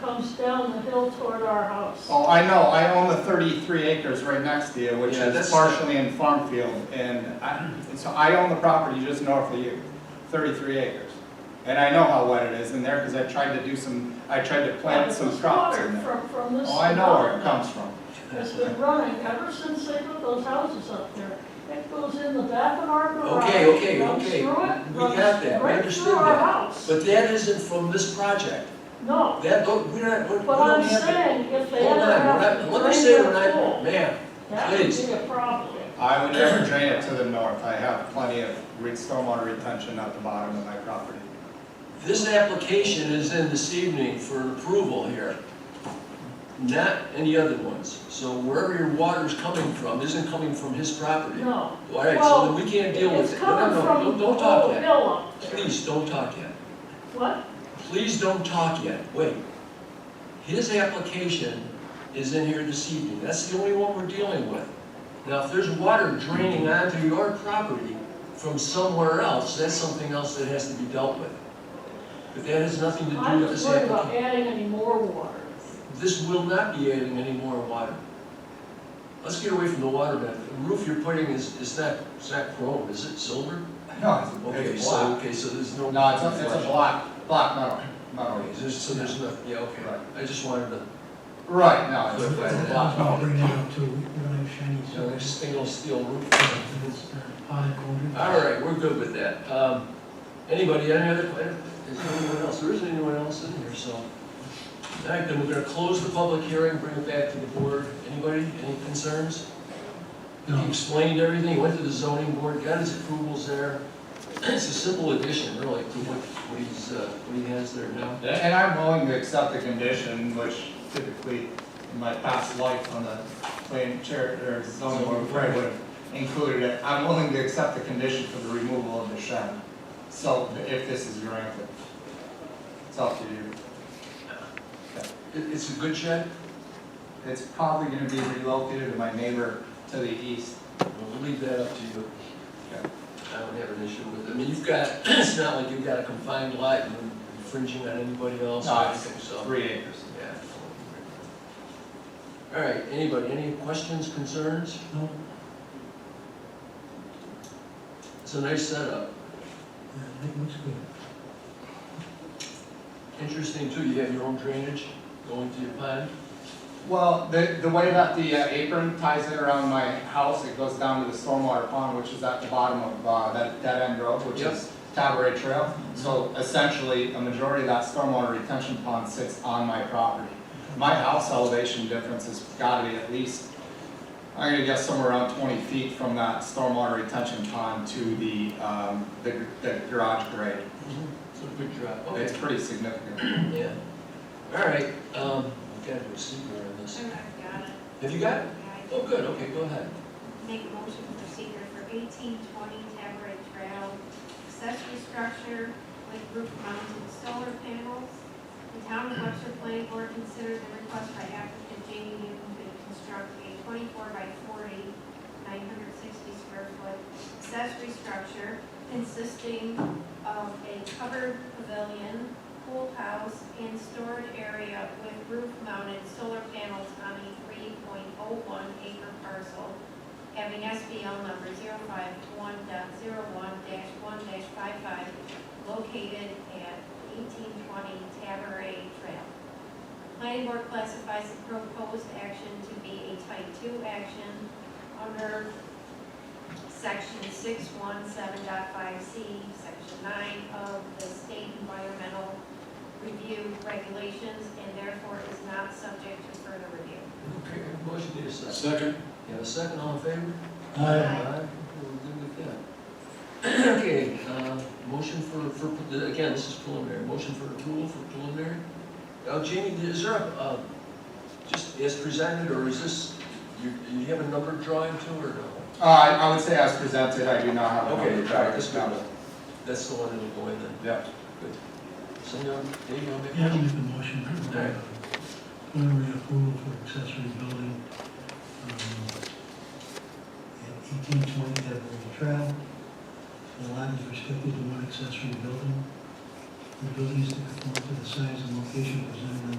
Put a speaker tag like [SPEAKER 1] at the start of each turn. [SPEAKER 1] comes down the hill toward our house.
[SPEAKER 2] Oh, I know, I own the thirty-three acres right next to you, which
[SPEAKER 3] Yeah,
[SPEAKER 2] is
[SPEAKER 3] that's-
[SPEAKER 2] partially in farm field, and I, so I own the property just north of you, thirty-three acres. And I know how wet it is in there, because I tried to do some, I tried to plant some
[SPEAKER 1] This
[SPEAKER 2] crops
[SPEAKER 1] water
[SPEAKER 2] in there.
[SPEAKER 1] From, from this.
[SPEAKER 2] Oh, I know where it comes from.
[SPEAKER 1] It's been running ever since they put those houses up there. It goes in the back of our garage.
[SPEAKER 3] Okay, okay,
[SPEAKER 1] runs
[SPEAKER 3] okay.
[SPEAKER 1] through it,
[SPEAKER 3] We
[SPEAKER 1] runs
[SPEAKER 3] got that. We
[SPEAKER 1] right
[SPEAKER 3] understood
[SPEAKER 1] through our
[SPEAKER 3] that.
[SPEAKER 1] house.
[SPEAKER 3] But that isn't from this project.
[SPEAKER 1] No,
[SPEAKER 3] That, don't- we're not, we're- we
[SPEAKER 1] but I'm
[SPEAKER 3] don't have to.
[SPEAKER 1] saying if they
[SPEAKER 3] Hold
[SPEAKER 1] ever
[SPEAKER 3] on, we're
[SPEAKER 1] have
[SPEAKER 3] not-
[SPEAKER 1] to
[SPEAKER 3] let me
[SPEAKER 1] drain
[SPEAKER 3] say,
[SPEAKER 1] their
[SPEAKER 3] we're not,
[SPEAKER 1] pool,
[SPEAKER 3] ma'am,
[SPEAKER 1] that
[SPEAKER 3] please.
[SPEAKER 1] would be a problem.
[SPEAKER 2] I would never drain it to the north, I have plenty of re- stormwater retention at the bottom of my property.
[SPEAKER 3] This application is in this evening for approval here, not any other ones. So wherever your water's coming from isn't coming from his property. All
[SPEAKER 1] No.
[SPEAKER 3] right, so then we can't deal
[SPEAKER 1] It's
[SPEAKER 3] with it. No,
[SPEAKER 1] coming
[SPEAKER 3] no,
[SPEAKER 1] from
[SPEAKER 3] no, don't-
[SPEAKER 1] the
[SPEAKER 3] Don't talk
[SPEAKER 1] old
[SPEAKER 3] yet.
[SPEAKER 1] hill up there.
[SPEAKER 3] Please, don't talk yet.
[SPEAKER 1] What?
[SPEAKER 3] Please don't talk yet, wait. His application is in here this evening, that's the only one we're dealing with. Now, if there's water draining onto your property from somewhere else, that's something else that has to be dealt with. But that has nothing to do
[SPEAKER 1] I'm
[SPEAKER 3] with
[SPEAKER 1] just
[SPEAKER 3] this
[SPEAKER 1] worried about
[SPEAKER 3] application.
[SPEAKER 1] adding any more water.
[SPEAKER 3] This will not be adding any more water. Let's get away from the water, man. The roof you're putting is, is not, it's not chrome, is it silver?
[SPEAKER 2] No, it's,
[SPEAKER 3] Okay,
[SPEAKER 2] it's
[SPEAKER 3] so,
[SPEAKER 2] block.
[SPEAKER 3] okay, so there's no.
[SPEAKER 2] No, it's a, it's a block, block metal, metal.
[SPEAKER 3] Okay, there's- so there's no, yeah, okay,
[SPEAKER 2] Right.
[SPEAKER 3] I just wanted to
[SPEAKER 2] Right, no, it's
[SPEAKER 3] Clarify
[SPEAKER 2] it's a
[SPEAKER 3] that.
[SPEAKER 2] block
[SPEAKER 4] I'll
[SPEAKER 2] metal.
[SPEAKER 4] bring that up too, we don't have shiny
[SPEAKER 3] You know,
[SPEAKER 4] silver.
[SPEAKER 3] like stainless steel roof.
[SPEAKER 4] It's, uh, high quality.
[SPEAKER 3] All right, we're good with that. Um, anybody, any other, is there anyone else? There isn't anyone else in here, so. All right, then we're gonna close the public hearing, bring it back to the board. Anybody, any concerns? He
[SPEAKER 4] No,
[SPEAKER 3] explained everything, He went to the zoning board, got his approvals there. It's a simple addition, really, to what, what he's, uh, what he has there now.
[SPEAKER 2] And I'm willing to accept the condition, which typically in my past life on the plan chair or zoning board, probably would have included it. I'm willing to accept the condition for the removal of the shed, so if this is granted. It's up to you.
[SPEAKER 3] It, it's a good shed,
[SPEAKER 2] It's probably gonna be relocated to my neighbor to the east.
[SPEAKER 3] we'll leave that up to you.
[SPEAKER 2] Okay.
[SPEAKER 3] I don't have an issue with it. I mean, you've got, it's not like you've got a confined lot and infringing on anybody else or
[SPEAKER 2] No, it's
[SPEAKER 3] anything, so.
[SPEAKER 2] Three acres.
[SPEAKER 3] Yeah. All right, anybody, any questions, concerns?
[SPEAKER 4] no,
[SPEAKER 3] It's a nice setup.
[SPEAKER 4] yeah, I think uh, it looks good.
[SPEAKER 3] Interesting too, you have your own drainage going to your pond.
[SPEAKER 2] Well, the, the way that the uh, apron ties in around my house, it goes down to the stormwater pond, which is at the bottom of, uh, that dead end road, which
[SPEAKER 3] Yep.
[SPEAKER 2] is Tabaret Trail. So essentially, a majority of that stormwater retention pond sits on my property. My house elevation difference has gotta be at least, I'm gonna guess somewhere around twenty feet from that stormwater retention pond to the, um, the, the garage grade.
[SPEAKER 3] It's a good job,
[SPEAKER 2] It's
[SPEAKER 3] okay.
[SPEAKER 2] pretty significant.
[SPEAKER 3] Yeah. All right, um, I've got to do a secret on this. Have you got it? Oh, good, okay, go ahead.
[SPEAKER 5] Make a motion for seeker for eighteen twenty Tabaret Trail, accessory structure with roof mounted solar panels. The town of Webster Planning Board considers the request by applicant Jamie Newton to construct a twenty-four by 40, 960 square foot accessory structure consisting of a covered pavilion, pool house, and storage area with roof-mounted solar panels on a three point oh one acre parcel having SBL number 51 one five five located at eighteen twenty Tabaret Trail. Planning board classifies the proposed action to be a type two action under section six one seven C, section nine of the state environmental review regulations, and therefore is not subject to further review.
[SPEAKER 3] Okay, motion need a second.
[SPEAKER 6] Second.
[SPEAKER 3] You have a second, all in favor?
[SPEAKER 4] I,
[SPEAKER 3] Aye, we're good with that. Okay, uh, motion for, for, again, this is preliminary, motion for approval for preliminary. Now, Jamie, is there a, uh, just as presented, or is this, you, you have a number drawing too, or no?
[SPEAKER 2] Uh, I I would say as presented, I do not have a
[SPEAKER 3] Okay,
[SPEAKER 2] number.
[SPEAKER 3] all right, that's
[SPEAKER 2] No.
[SPEAKER 3] good. That's the one that'll go in then.
[SPEAKER 2] Yep.
[SPEAKER 3] So, you know, Dave, you want to make a
[SPEAKER 4] yeah, I'll
[SPEAKER 3] motion?
[SPEAKER 4] make the motion.
[SPEAKER 3] Alright.
[SPEAKER 4] Preliminary approval for accessory building, um, at eighteen twenty Devil's Trail. The lot is restricted to one accessory building. The building is to conform to the size and location presented on the